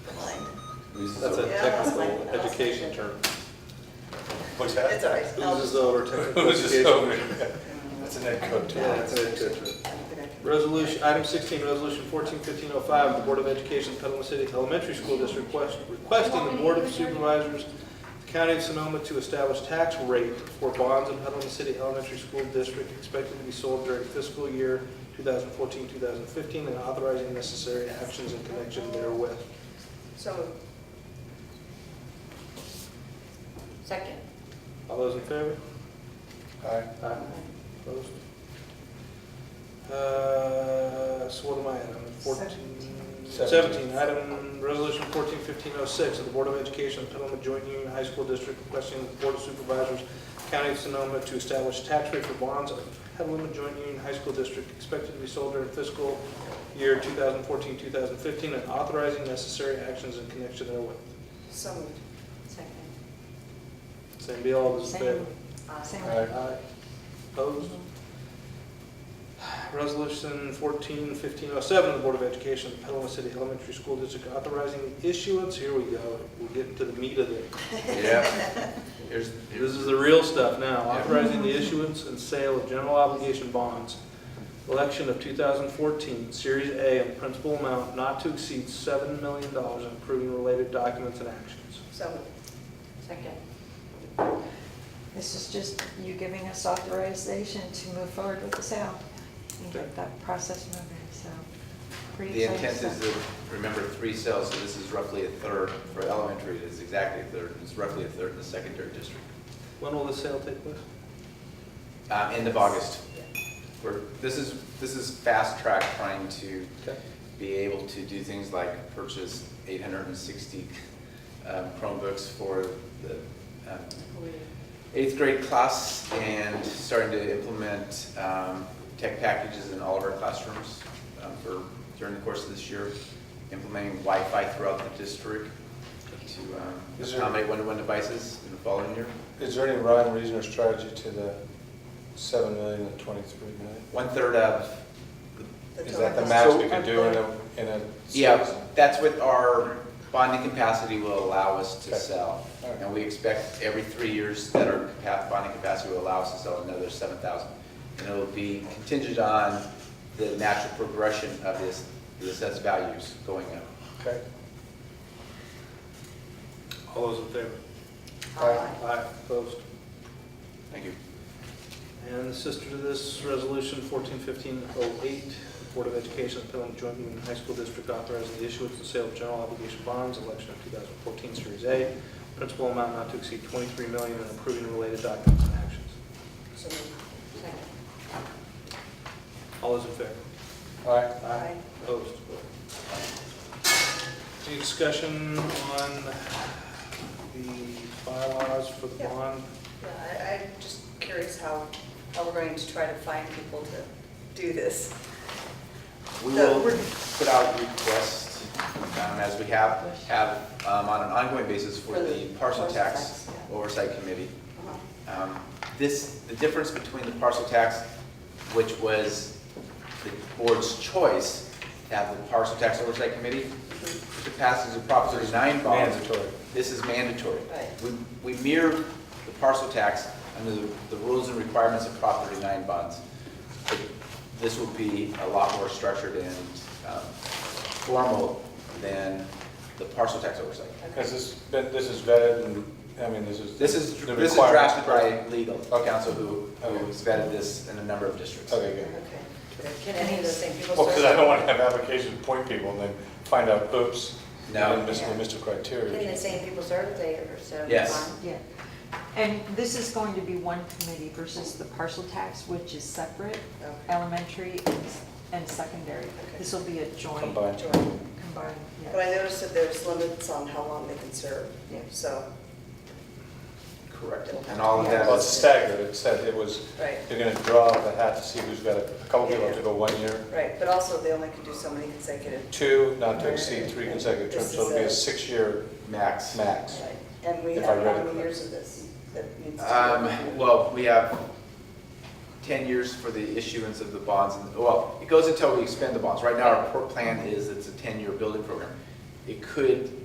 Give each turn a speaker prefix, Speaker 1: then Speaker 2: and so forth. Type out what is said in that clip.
Speaker 1: This
Speaker 2: That's a
Speaker 1: is
Speaker 3: Yeah, that's
Speaker 2: technical
Speaker 3: fine.
Speaker 2: education term.
Speaker 4: What's
Speaker 3: It's all
Speaker 4: that?
Speaker 3: right. I'll-
Speaker 2: Oozes over technical
Speaker 4: Who's this
Speaker 2: education.
Speaker 4: over? That's an ed code term.
Speaker 2: Yeah, that's an ed code term.
Speaker 3: I don't think I can-
Speaker 2: Resolution, item 16, resolution 141505, of the Board of Education, Petaluma City Elementary School District request- requesting the Board of Supervisors, the County of Sonoma to establish tax rate for bonds in Petaluma City Elementary School District expected to be sold during fiscal year 2014-2015 and authorizing necessary actions in connection therewith.
Speaker 3: So moved.
Speaker 5: Second.
Speaker 2: All those in favor?
Speaker 4: Aye.
Speaker 2: Aye. Opposed? Uh, So what am I at, I'm at 14,
Speaker 4: Seventeen.
Speaker 2: 17, item, resolution 141506, of the Board of Education of Petaluma Joint Union High School District requesting the Board of Supervisors, County of Sonoma, to establish tax rate for bonds of Petaluma Joint Union High School District expected to be sold during fiscal year 2014-2015 and authorizing necessary actions in connection therewith.
Speaker 3: So moved.
Speaker 5: Second.
Speaker 2: Same be all, those in favor?
Speaker 5: Same. Same.
Speaker 4: Aye.
Speaker 2: Aye. Opposed? Resolution 141507, the Board of Education, of Petaluma City Elementary School District authorizing the issuance, here we go, we're getting to the meat of it.
Speaker 1: Yeah. Here's,
Speaker 2: This is the real stuff now, authorizing the issuance and sale of general obligation bonds, election of 2014, Series A, in principal amount not to exceed $7 million, and approving related documents and actions.
Speaker 3: So moved.
Speaker 5: Second.
Speaker 6: This is just you giving us authorization to move forward with the sale and get that process moving, so. pretty
Speaker 1: the
Speaker 6: exciting
Speaker 1: intent is
Speaker 6: stuff.
Speaker 1: to, remember, three cells, so this is roughly a third. For elementary, it is exactly a third, and it's roughly a third in the secondary district.
Speaker 2: When will the sale take place?
Speaker 1: Uh, end of August. We're, this is, this is fast track trying to
Speaker 2: Okay.
Speaker 1: be able to do things like purchase 860 um, Chromebooks for the um, eighth grade class and starting to implement um, tech packages in all of our classrooms um, for, during the course of this year, implementing Wi-Fi throughout the district to um,
Speaker 4: Is there-
Speaker 1: accommodate one-to-one devices in the following year.
Speaker 4: Is there any rhyme, reason, or strategy to the seven million and twenty-three million?
Speaker 1: One-third of
Speaker 3: The
Speaker 4: Is that the
Speaker 3: total-
Speaker 4: max we could do in a, in a?
Speaker 1: Yeah, that's what our bonding capacity will allow us to
Speaker 4: Okay.
Speaker 1: sell.
Speaker 4: All right.
Speaker 1: And we expect every three years that our capa- bonding capacity will allow us to sell another 7,000. And it'll be contingent on the natural progression of this, the assessed values going up.
Speaker 4: Okay.
Speaker 2: All those in favor?
Speaker 4: Aye.
Speaker 2: Aye. Opposed?
Speaker 1: Thank you.
Speaker 2: And the sister to this resolution, 141508, Board of Education, of Pelham Joint Union High School District authorizing the issuance and sale of general obligation bonds, election of 2014 Series A, principal amount not to exceed 23 million, and approving related documents and actions.
Speaker 3: So moved.
Speaker 5: Second.
Speaker 2: All those in favor?
Speaker 4: Aye.
Speaker 3: Aye.
Speaker 2: Opposed? Any discussion on the bylaws for the
Speaker 3: Yeah.
Speaker 2: bond?
Speaker 3: Yeah, I, I'm just curious how, how we're going to try to find people to do this.
Speaker 1: We
Speaker 3: So
Speaker 1: will
Speaker 3: we're-
Speaker 1: put out requests, um, as we have, have um, on an ongoing basis for the parcel tax oversight committee.
Speaker 3: Uh-huh.
Speaker 1: Um, This, the difference between the parcel tax, which was the board's choice to have the parcel tax oversight committee, the passage of Prop 39 bond,
Speaker 4: Mandatory.
Speaker 1: this is mandatory.
Speaker 3: Right.
Speaker 1: We we mirror the parcel tax under the the rules and requirements of Prop 39 bonds. But This will be a lot more structured and um, formal than the parcel tax oversight.
Speaker 4: Has this been, this is vetted and, I mean, this is.
Speaker 1: This is,
Speaker 4: the
Speaker 1: this is drafted
Speaker 4: requirements.
Speaker 1: by legal counsel who,
Speaker 4: Okay.
Speaker 1: who has vetted this in a number of districts.
Speaker 4: Okay, good.
Speaker 3: Okay. Can any of those same people
Speaker 4: Well,
Speaker 3: serve?
Speaker 4: because I don't want to have applications point people and then find out, oops, and
Speaker 1: No.
Speaker 4: then miss the missed
Speaker 5: Can the
Speaker 4: criteria.
Speaker 5: same people serve if they are served?
Speaker 1: Yes.
Speaker 5: on?
Speaker 6: Yeah. And this is going to be one committee versus the parcel tax, which is separate,
Speaker 3: Okay.
Speaker 6: elementary and s- and secondary.
Speaker 3: Okay.
Speaker 6: This will be a joint.
Speaker 4: Combined.
Speaker 3: Join.
Speaker 6: Combined,
Speaker 3: But I
Speaker 6: yeah.
Speaker 3: noticed that there's limits on how long they can serve,
Speaker 6: Yeah.
Speaker 3: so,
Speaker 1: Correct. And all of that
Speaker 4: Well, it's
Speaker 1: is,
Speaker 4: staggered, it said it was,
Speaker 3: right,
Speaker 4: you're going to draw the hat to see who's got a a couple people have to go one year,
Speaker 3: right. But also, they only can do so many consecutive,
Speaker 4: two, not to exceed three consecutive terms,
Speaker 3: This
Speaker 4: so it'll be a
Speaker 3: is a-
Speaker 4: six-year
Speaker 1: max.
Speaker 4: max.
Speaker 3: right? And we
Speaker 4: If
Speaker 3: have
Speaker 4: I read
Speaker 3: how
Speaker 4: it
Speaker 3: many
Speaker 4: correct.
Speaker 3: years of this that needs to be?
Speaker 1: Um, well, we have ten years for the issuance of the bonds, and, well, it goes until we expend the bonds. Right now, our pro- plan is it's a ten-year building program. It could